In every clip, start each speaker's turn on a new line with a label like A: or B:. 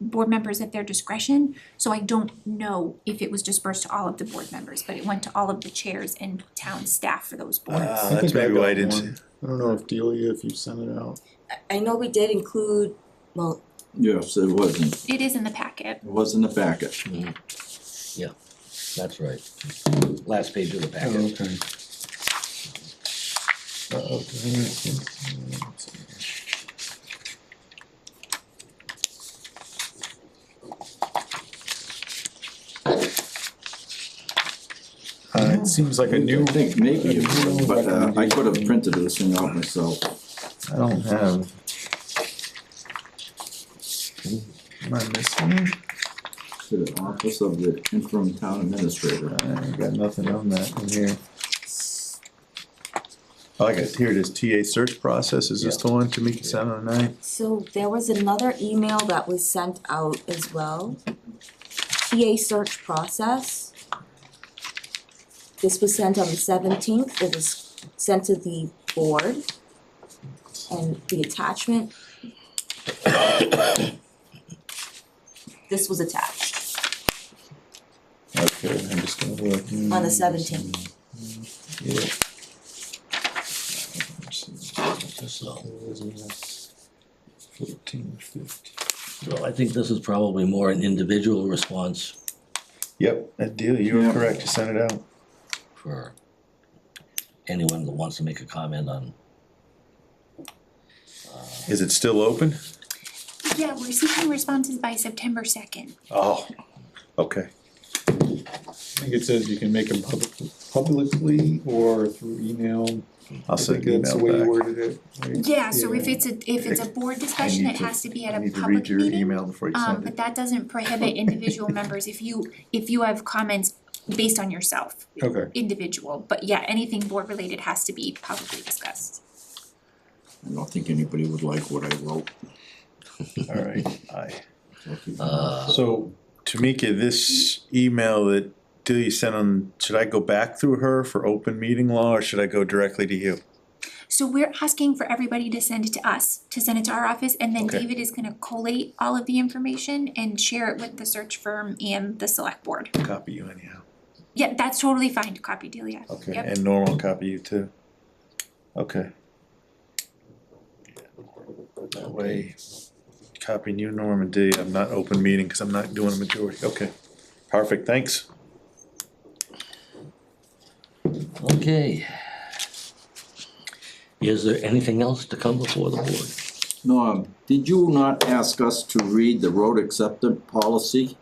A: board members at their discretion. So I don't know if it was dispersed to all of the board members, but it went to all of the chairs and town staff for those boards.
B: Ah,
C: I
B: that's
C: think I
B: maybe why I
C: got
B: didn't.
C: one. I don't know if Delia, if you sent it out.
D: I know we did include, well,
E: Yes, it wasn't,
A: It is in the packet.
E: it wasn't a packet.
F: Mm. That's right. Last page of the
C: Oh,
F: packet.
C: okay.
B: Oh,
C: Uh, okay. Uh, it seems like a new,
E: I think maybe, it was, but uh, I could have printed this thing out myself.
C: I don't have. Am I missing? it?
E: To the office of the interim town administrator.
C: Uh, I got nothing on that in here. Oh, I got, here it is, TA search process, is this the one, Tamika oh sent on the ninth?
D: so there was another email that was sent out as well. TA search process. This was sent on the seventeenth, it was sent to the board. And the attachment. This was attached
C: Okay, I'm just gonna look.
D: on the seventeenth.
C: Yeah. Fourteen, fifteen.
F: So I think this is probably more an individual response
C: Yep, that deal, you were
E: Yeah.
C: correct, you sent it out.
F: for anyone that wants to make a comment on.
C: Is it still open?
A: Yeah, we're seeking responses by September second.
C: Oh, okay.
B: I think it says you can make them public, publicly or through email.
C: I'll
B: I
C: send
B: think
C: an
B: that's the way you
C: email back.
B: worded it. right?
A: Yeah, so if it's a, if it's a board discussion,
C: need
A: it
C: to-
A: has to be
C: I
A: at a
C: need to
A: public
C: read your
A: meeting.
C: email before you
A: Um,
C: send
A: but
C: it.
A: that doesn't prohibit individual members if you, if you have comments based on yourself,
B: Okay,
A: individual, but yeah, anything board related has to be publicly discussed.
E: I don't think anybody would like what I wrote.
C: Alright, aye.
F: Uh,
C: So, Tamika, this email that Delia sent on, should I go back through her for open meeting law or should I go directly to you?
A: So we're asking for everybody to send it to us, to send it to our office, and then
C: Okay.
A: David is gonna collate all of the information and share it with the search firm and the select board.
C: Copy you anyhow.
A: Yeah, that's totally fine to copy Delia.
C: Okay,
A: Yep.
C: and Norm will copy you too. Okay. That way, copying you, Norm, and Dee, I'm not open meeting, cause I'm not doing a majority, okay. Perfect, thanks.
F: okay. Is there anything else to come before the board?
E: Norm, did you not ask us to read the road acceptance policy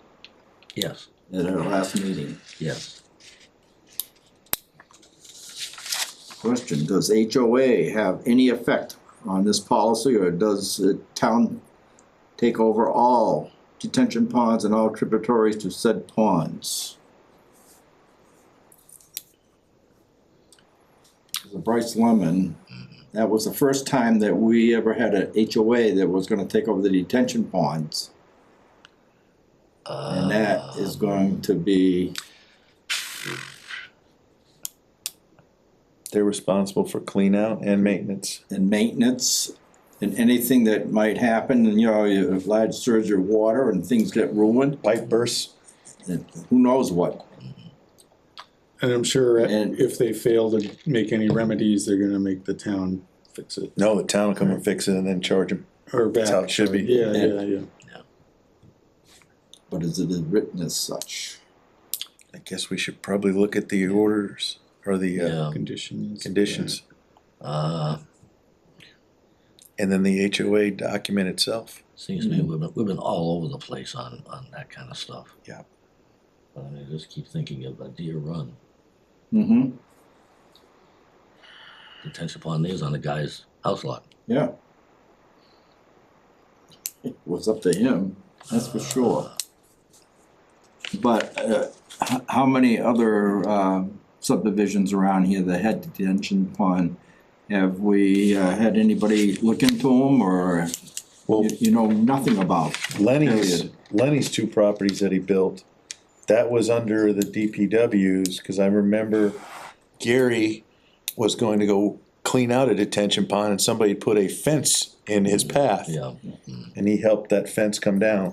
F: Yes,
E: at our last meeting?
F: yes.
E: Question, does HOA have any effect on this policy or does the town take over all detention ponds and all tributaries to said ponds? Bryce Lemon, that was the first time that we ever had a HOA that was gonna take over the detention ponds. And that is going to be,
C: They're responsible for clean out and maintenance.
E: and maintenance and anything that might happen, and you know, you have large surge of water and things get ruined,
C: Pipe bursts,
E: and who knows what.
B: and I'm sure
E: And-
B: if they fail to make any remedies, they're gonna make the town fix it,
C: no, the town will come and fix it and then charge them,
B: or back.
C: that's how it should be.
B: Yeah, yeah, yeah.
E: But is it written as such?
C: I guess we should probably look at the orders or the uh,
F: Yeah,
B: Conditions.
C: conditions,
F: uh,
C: and then the HOA document itself.
F: seems to me we've been, we've been all over the place on, on that kind of stuff.
C: Yeah.
F: But I mean, I just keep thinking of a deer run.
E: Mm-hmm,
F: Detention pond is on the guy's house lot.
E: yeah. It was up to him, that's for sure. But, uh, h- how many other, uh, subdivisions around here that had detention pond? Have we, uh, had anybody look into them, or
C: Well,
E: you, you know nothing about?
C: Lenny's,
E: Period.
C: Lenny's two properties that he built, that was under the DPWs, cause I remember Gary was going to go clean out a detention pond and somebody put a fence in his path.
F: Mm-hmm. Yeah.
C: And he helped that fence come down.